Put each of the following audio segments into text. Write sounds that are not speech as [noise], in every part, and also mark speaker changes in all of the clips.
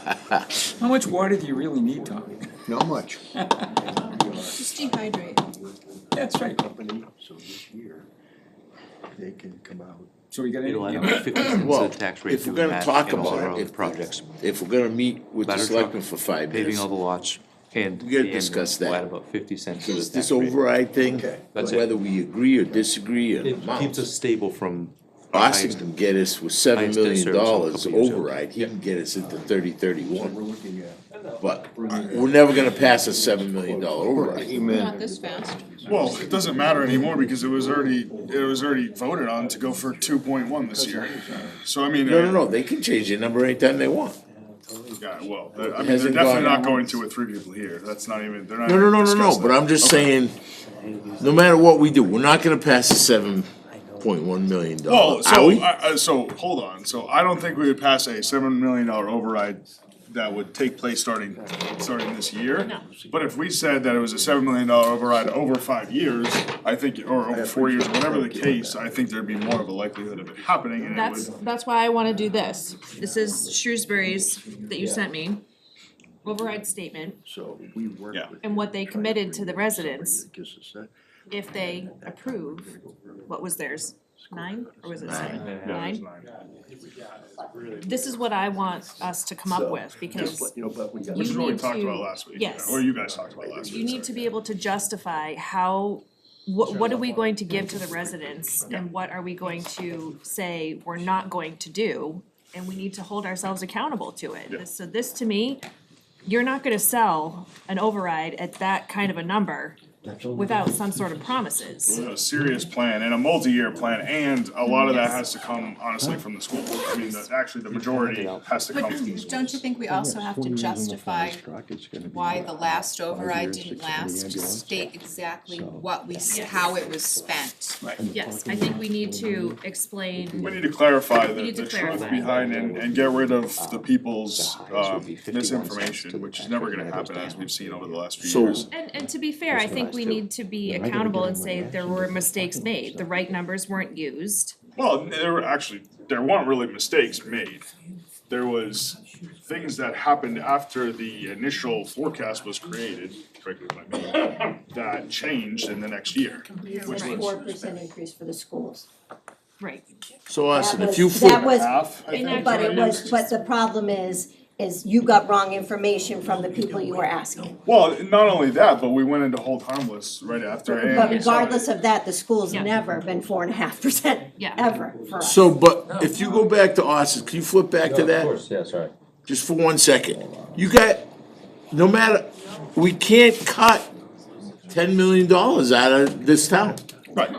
Speaker 1: How much water do you really need, Tommy?
Speaker 2: Not much.
Speaker 3: [laughs] Just dehydrate.
Speaker 1: [laughs] That's right.
Speaker 2: Company, so this year, they can come out.
Speaker 1: So we got
Speaker 4: You
Speaker 1: any,
Speaker 4: know, I don't know, fifty cents
Speaker 5: Well,
Speaker 4: of tax rate
Speaker 5: if we're
Speaker 4: doing
Speaker 5: gonna
Speaker 4: that
Speaker 5: talk
Speaker 4: and all our
Speaker 5: about
Speaker 4: other
Speaker 5: it, if,
Speaker 4: projects.
Speaker 5: if we're gonna meet with the
Speaker 4: Ladder truck,
Speaker 5: selectmen for five
Speaker 4: Paving
Speaker 5: minutes,
Speaker 4: all the lots and.
Speaker 5: We gotta
Speaker 4: and
Speaker 5: discuss that.
Speaker 4: we'll Add about fifty cents to the
Speaker 5: this,
Speaker 4: tax
Speaker 5: this
Speaker 4: rate.
Speaker 5: override thing,
Speaker 4: That's it.
Speaker 5: whether we agree or disagree on
Speaker 4: It keeps us
Speaker 5: amounts.
Speaker 4: stable from.
Speaker 5: Austin
Speaker 4: highest-
Speaker 5: can get us with seven
Speaker 4: highest debt
Speaker 5: million
Speaker 4: service on a
Speaker 5: dollars
Speaker 4: couple years ago.
Speaker 5: override, he can get us into thirty
Speaker 2: We're
Speaker 5: thirty-one,
Speaker 2: looking at.
Speaker 5: but we're never gonna pass a seven million dollar override.
Speaker 3: Not this fast.
Speaker 6: Well, it doesn't matter anymore because it was already, it was already voted on to go for two point one this year. So I mean. uh,
Speaker 5: No, no, no, they can change their number anytime they want.
Speaker 6: Yeah, well, they're- I mean, they're
Speaker 5: Hasn't
Speaker 6: definitely
Speaker 5: gone-
Speaker 6: not going to with three people here. That's not even, they're not.
Speaker 5: No, no, no, no, no,
Speaker 6: discussing
Speaker 5: but
Speaker 6: that.
Speaker 5: I'm just
Speaker 6: Okay.
Speaker 5: saying, no matter what we do, we're not gonna pass a seven point one million dollar, are
Speaker 6: Well, Oh, so, uh,
Speaker 5: we?
Speaker 6: I, I, so, hold on, so I don't think we would pass a seven million dollar override that would take place starting, starting this year. But if we said that it was a seven million dollar override over five years, I think, or over four years, whatever the case, I think there'd be more of a likelihood of it happening and it
Speaker 7: That's,
Speaker 6: would.
Speaker 7: that's why I wanna do this. This is Shrewsbury's that you sent me. Override statement
Speaker 2: So we work
Speaker 6: Yeah.
Speaker 2: with.
Speaker 7: and what they committed to the residents
Speaker 2: Gives us that.
Speaker 7: if they approve, what was theirs? Nine, or was it seven? Nine? This is what I want us to come up with, because
Speaker 2: You know, but we got.
Speaker 6: Which is
Speaker 7: You
Speaker 6: what we
Speaker 7: need
Speaker 6: talked
Speaker 7: to-
Speaker 6: about last week,
Speaker 7: yes.
Speaker 6: or you guys talked about last
Speaker 7: you
Speaker 6: week,
Speaker 7: need to
Speaker 6: sorry.
Speaker 7: be able to justify how, what, what are we going to give to the residents? And what are we going to say we're not going to do? And we need to hold ourselves accountable to
Speaker 6: Yeah.
Speaker 7: it. So this, to me, you're not gonna sell an override at that kind of a number without some sort of promises.
Speaker 6: A serious plan and a multi-year plan, and a lot of that has to come honestly from the school board. I mean, the- actually, the majority has to come from the school.
Speaker 3: Don't you think we also have to justify why the last override didn't last? Just state exactly what we, s- how it was spent.
Speaker 7: Yes, I think we need to explain,
Speaker 6: We need to clarify the,
Speaker 7: We need to
Speaker 6: the truth
Speaker 7: clarify.
Speaker 6: behind and, and get rid of the people's,
Speaker 4: The highest would
Speaker 6: um,
Speaker 4: be 51 cents to
Speaker 6: misinformation,
Speaker 4: the
Speaker 6: which is
Speaker 4: tax
Speaker 6: never
Speaker 4: rate,
Speaker 6: gonna
Speaker 4: and it goes
Speaker 6: happen as
Speaker 4: down.
Speaker 6: we've seen over the last few
Speaker 5: So-
Speaker 6: years.
Speaker 7: and, and to be fair, I think we need to be accountable and say there were mistakes made, the right numbers weren't used.
Speaker 6: Well, there were actually, there weren't really mistakes made. There was things that happened after the initial forecast was created, correct me if I'm wrong, that changed in the next year.
Speaker 8: Here's a four percent increase for the schools.
Speaker 7: Right.
Speaker 5: So Austin, if
Speaker 8: was-
Speaker 5: you
Speaker 8: That
Speaker 5: flip,
Speaker 8: was,
Speaker 6: Half, I think,
Speaker 8: but
Speaker 6: is
Speaker 8: it
Speaker 6: what
Speaker 8: was, but the problem is, is you got wrong information from the people you were asking.
Speaker 6: Well, not only that, but we went into hold harmless right after. and
Speaker 8: But
Speaker 6: we saw it.
Speaker 8: regardless of that, the school's
Speaker 7: Yeah.
Speaker 8: never been four and a half percent,
Speaker 7: Yeah.
Speaker 8: ever, for us.
Speaker 5: so, but if you go back to Austin, can you flip back to that?
Speaker 4: yeah, sorry.
Speaker 5: just for one second. You got, no matter, we can't cut ten million dollars out of this town.
Speaker 6: Right,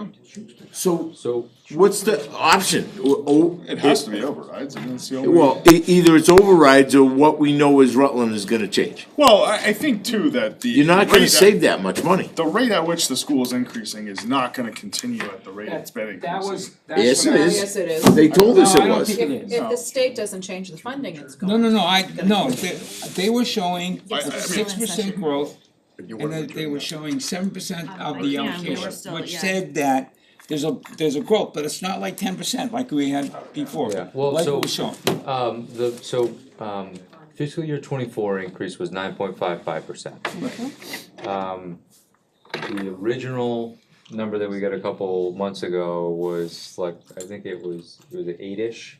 Speaker 5: So
Speaker 4: So.
Speaker 5: what's the option? O- o-
Speaker 6: it has to be overrides, and that's the only.
Speaker 5: Well, e- either it's overrides or what we know is Rutland is gonna change.
Speaker 6: Well, I, I think too that the.
Speaker 5: You're not gonna
Speaker 6: rate
Speaker 5: save
Speaker 6: at-
Speaker 5: that much money.
Speaker 6: The rate at which the school is increasing is not gonna continue at the rate it's been increasing.
Speaker 1: that was,
Speaker 5: Yes,
Speaker 1: that's
Speaker 5: it
Speaker 1: what I.
Speaker 5: is.
Speaker 3: Yes, it is.
Speaker 5: They told us
Speaker 1: No,
Speaker 5: it
Speaker 1: I don't
Speaker 5: was.
Speaker 1: think it is.
Speaker 3: If the state doesn't change the funding, it's
Speaker 1: No,
Speaker 3: gone.
Speaker 1: no, no, I, no, they, they were showing
Speaker 6: I- I mean-
Speaker 1: six percent growth, and then they were showing seven percent of the
Speaker 7: Yeah, we were
Speaker 1: allocation,
Speaker 7: still-
Speaker 1: which
Speaker 7: yeah.
Speaker 1: said that there's a, there's a growth, but it's not like ten percent like we had before,
Speaker 4: Yeah, well,
Speaker 1: like it
Speaker 4: so-
Speaker 1: was shown.
Speaker 4: Um, the, so, um, fiscal year twenty-four increase was nine point five five percent. Um, the original number that we got a couple months ago was like, I think it was, it was eight-ish.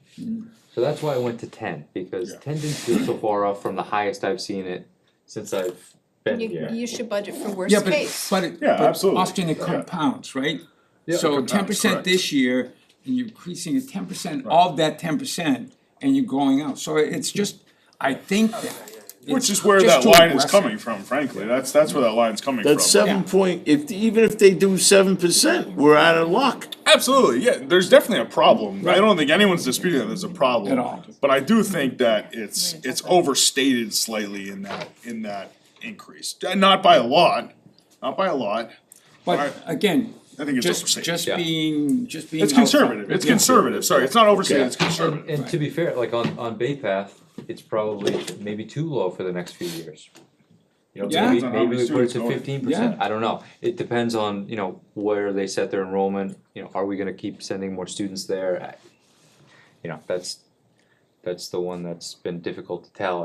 Speaker 4: So that's why I went to ten, because
Speaker 6: Yeah.
Speaker 4: ten didn't feel so far off from the highest I've seen it since I've been
Speaker 3: You,
Speaker 4: here.
Speaker 3: you should budget for worst
Speaker 1: Yeah, but,
Speaker 3: case.
Speaker 1: but it,
Speaker 6: Yeah,
Speaker 1: but
Speaker 6: absolutely.
Speaker 1: often it
Speaker 6: Yeah.
Speaker 1: compounds, right?
Speaker 4: Yeah, it
Speaker 1: So
Speaker 6: compounds,
Speaker 1: ten percent
Speaker 6: correct.
Speaker 1: this year, and you're increasing at ten percent of that ten percent, and you're going out, so it's just, I think that.
Speaker 6: Which is where that line is coming from, frankly, that's, that's where that line's coming from.
Speaker 5: That's seven point, if, even if they do seven percent, we're out of luck.
Speaker 6: Absolutely, yeah, there's definitely a problem, I don't think anyone's disputing that there's a problem.
Speaker 1: At all.
Speaker 6: But I do think that it's, it's overstated slightly in that, in that increase, Uh, not by a lot, not by a lot,
Speaker 1: But again,
Speaker 6: I think it's
Speaker 1: just,
Speaker 6: overstated.
Speaker 1: just
Speaker 4: Yeah.
Speaker 1: being, just being.
Speaker 6: It's
Speaker 1: outside.
Speaker 6: conservative, it's
Speaker 1: Yeah.
Speaker 6: conservative, sorry, it's not overstated, it's
Speaker 4: Yeah.
Speaker 6: conservative.
Speaker 4: And to be fair, like on, on Bay Path, it's probably maybe too low for the next few years. You
Speaker 1: Yeah.
Speaker 4: know, maybe,
Speaker 6: Depends on how
Speaker 4: maybe
Speaker 6: many
Speaker 4: we put it
Speaker 6: students
Speaker 4: to
Speaker 6: go in.
Speaker 4: fifteen percent, I don't know, it depends on, you know, where they set their enrollment, you know, are we gonna keep sending more students there? I- You know, that's, That's the one that's been difficult to tell,